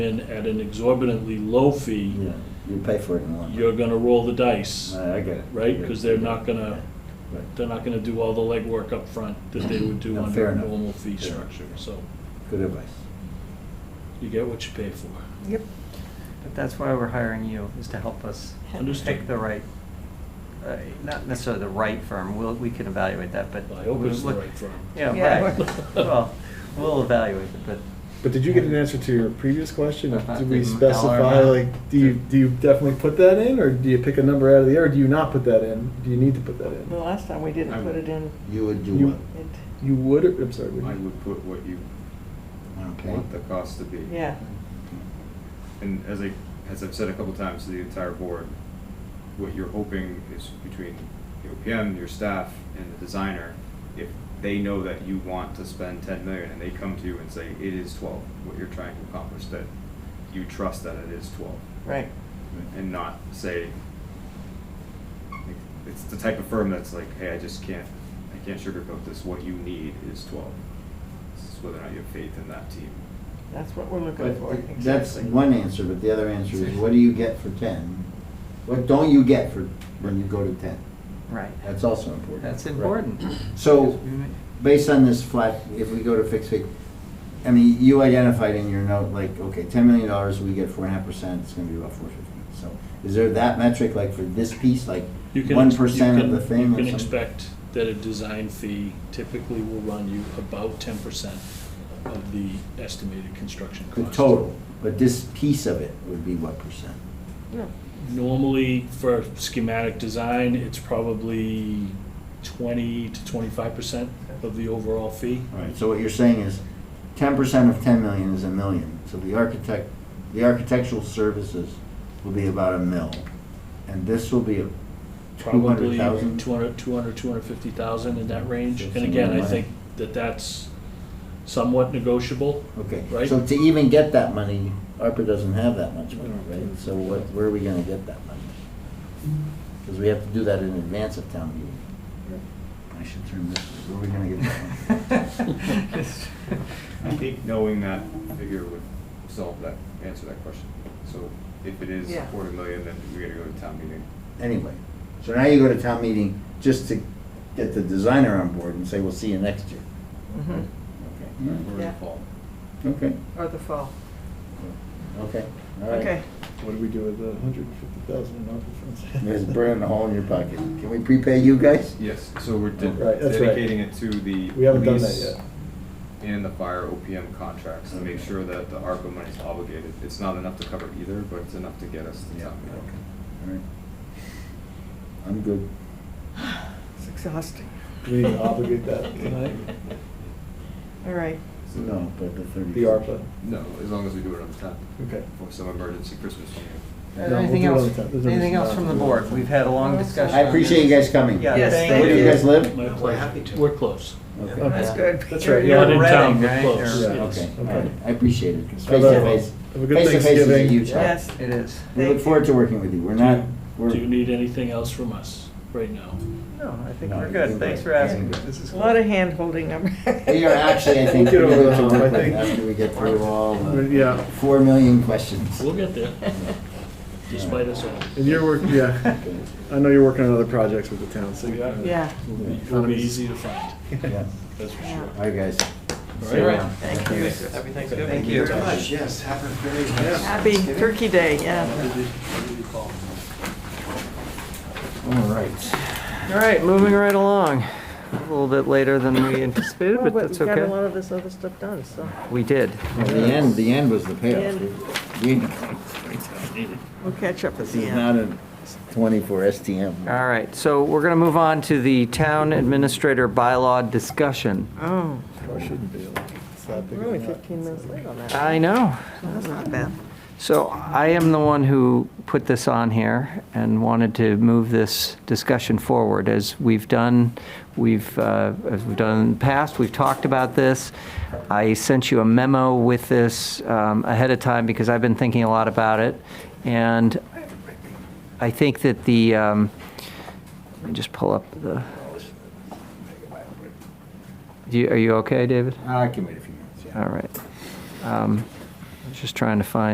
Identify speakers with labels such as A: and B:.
A: in at an exorbitantly low fee,
B: Yeah, you pay for it in one.
A: you're gonna roll the dice,
B: I I get it.
A: right? Because they're not gonna, uh,
B: Right.
A: they're not gonna do all the legwork up front that they would do
B: No,
A: under
B: fair
A: a
B: enough.
A: normal fee
B: Fair enough.
A: structure. So
B: Good advice.
A: you get what you pay for.
C: Yep. But that's why we're hiring you, is to help us
A: Understood.
C: pick the right, uh, not necessarily the right firm, we'll, we can evaluate that, but.
A: I hope it's the
C: we'll-
A: right firm.
C: Yeah,
D: Yeah.
C: right. Well, we'll evaluate it, but
E: But did you get an answer to your previous question?
C: About
E: Did
C: the
E: we
C: dollar
E: specify,
C: amount?
E: like, do you, do you definitely put that in, or do you pick a number out of the air, or do you not put that in? Do you need to put that
D: The
E: in?
D: last time we didn't put it in,
F: You would do
E: You-
F: what?
D: it,
E: You would, or, I'm sorry, would
G: I
E: you?
G: would put what you
B: Okay.
G: want the cost to be.
D: yeah,
G: And as I, as I've said a couple times to the entire board, what you're hoping is between your OPM, your staff, and the designer, if they know that you want to spend ten million and they come to you and say, it is twelve, what you're trying to accomplish, that you trust that it is twelve,
D: right.
G: and not say, like, it's the type of firm that's like, hey, I just can't, I can't sugarcoat this, what you need is twelve. This is whether or not you have faith in that team.
D: That's what we're looking for,
B: But that's
D: exactly.
B: one answer, but the other answer is what do you get for ten? What don't you get for, when you go to ten?
C: Right,
B: That's also important.
C: that's
B: Right.
C: important.
B: So,
C: Because we may-
B: based on this flat, if we go to fixed fee, I mean, you identified in your note, like, okay, ten million dollars, we get four and a half percent, it's gonna be about four fifty. So, is there that metric, like, for this piece, like,
A: You can-
B: one
A: you
B: percent of
A: can-
B: the thing
A: You
B: or
A: can
B: something?
A: expect that a design fee typically will run you about ten percent of the estimated construction
B: The
A: cost.
B: total, but this piece of it would be what percent?
D: Yeah.
A: Normally, for schematic design, it's probably twenty to twenty-five percent of the overall fee.
B: All right, so what you're saying is ten percent of ten million is a million. So the architect, the architectural services will be about a mil. And this will be a two
A: Probably
B: hundred
A: two
B: thousand?
A: hundred, two hundred, two hundred fifty thousand in that range. And
B: Something
A: again, I
B: like that.
A: think that that's somewhat negotiable.
B: Okay,
A: right.
B: so to even get that money, ARPA doesn't have that much money, right? So what, where are we gonna get that money? Because we have to do that in advance of town meeting. I should turn this, where are we gonna get that money?
G: I think knowing that figure would solve that, answer that question. So if it is
D: Yeah.
G: quarter million, then we gotta go to town meeting.
B: Anyway, so now you go to town meeting just to get the designer on board and say, we'll see you next year.
D: Mhm.
B: Okay.
G: We're in
D: Yeah.
G: fall.
B: Okay,
D: Or the fall,
B: okay, all right.
D: okay.
E: What do we do with the hundred and fifty thousand in ARPA funds?
B: There's burning a hole in your pocket. Can we prepay you guys?
G: Yes, so we're de-
E: Right, that's right.
G: dedicating it to the
E: We haven't done that
G: police
E: yet.
G: And the fire OPM contracts to make
B: Okay.
G: sure that the ARPA money is obligated. It's not enough to cover either, but it's enough to get us to
B: Yeah.
G: town meeting.
B: All right. I'm good.
D: It's exhausting.
E: Do we need to obligate that tonight?
D: All right,
B: No, but the thirty.
E: The ARPA?
G: No, as long as we do it on the tenth,
E: Okay.
G: for some emergency Christmas meeting.
E: No, we'll
C: Uh, Anything
E: do it on
C: else,
E: the tenth. There's no
C: anything
E: reason
C: else
E: not
C: from
E: to
C: the
E: do it on
C: board? We've had a long
D: Well,
C: discussion.
B: I appreciate you guys coming.
C: Yeah,
D: Yes,
C: thank
B: Where do you
D: you.
B: guys live?
A: My
H: We're
A: pleasure.
H: happy to.
A: We're close.
B: Okay.
E: Okay.
D: that's good.
E: That's
C: You're-
E: right,
C: you're
E: yeah.
A: Not in
C: Reading,
A: town, we're
C: right?
A: close,
C: Or-
E: Yeah.
A: yes.
B: Okay, all right. I appreciate it. Face
E: Have a-
B: to face.
E: have a good
B: Face to face is a
E: Thanksgiving.
B: huge help.
D: Yes, it is.
B: We look
D: Thank
B: forward to working with you. We're not, we're.
A: Do you need anything else from us right now?
C: No, I think
B: No,
C: we're
B: I
C: good,
B: think
C: thanks for
B: we're-
C: asking,
B: yeah.
C: this is.
D: A lot of hand holding. I'm-
B: We are actually, I think,
E: We'll get
B: really
E: over
B: good
E: the
B: to
E: hump, I
B: work with
E: think.
B: after we get through all
E: But,
B: the
E: Yeah,
B: four million questions.
A: We'll get there, despite us all.
E: and you're working, yeah, I know you're working on other projects with the town, so.
A: We are.
D: Yeah,
A: It'll be easy to find,
B: Yeah.
A: that's for sure.
B: All right, guys.
A: All
B: See you
A: right.
B: around.
D: thank you.
C: Happy Thanksgiving.
H: Thank you very much, yes, happy, very nice.
D: Happy Turkey Day, yeah.
B: All right.
C: All right, moving right along, a little bit later than we anticipated,
D: Well,
C: Oh, but
D: but we got
C: that's
D: a lot
C: okay.
D: of this other stuff done, so.
C: We did.
B: Well, the end, the end was the payoff.
D: end.
B: We didn't come straight down either.
D: We'll catch up at
B: This
D: the
B: is
D: end.
B: not a twenty-four STM.
C: All right, so we're going to move on to the town administrator bylaw discussion.
D: Oh,
E: Probably shouldn't be, like, it's that big
D: we're
E: of
D: only
E: a nut.
D: 15 minutes late on that.
C: I know.
D: That's not bad.
C: So I am the one who put this on here and wanted to move this discussion forward. As we've done, we've, uh, as we've done in the past, we've talked about this. I sent you a memo with this um, ahead of time because I've been thinking a lot about it. And I think that the, um, let me just pull up the, do you- are you okay, David?
B: I can wait a few minutes, yeah.
C: All right. Um, I was Just trying to find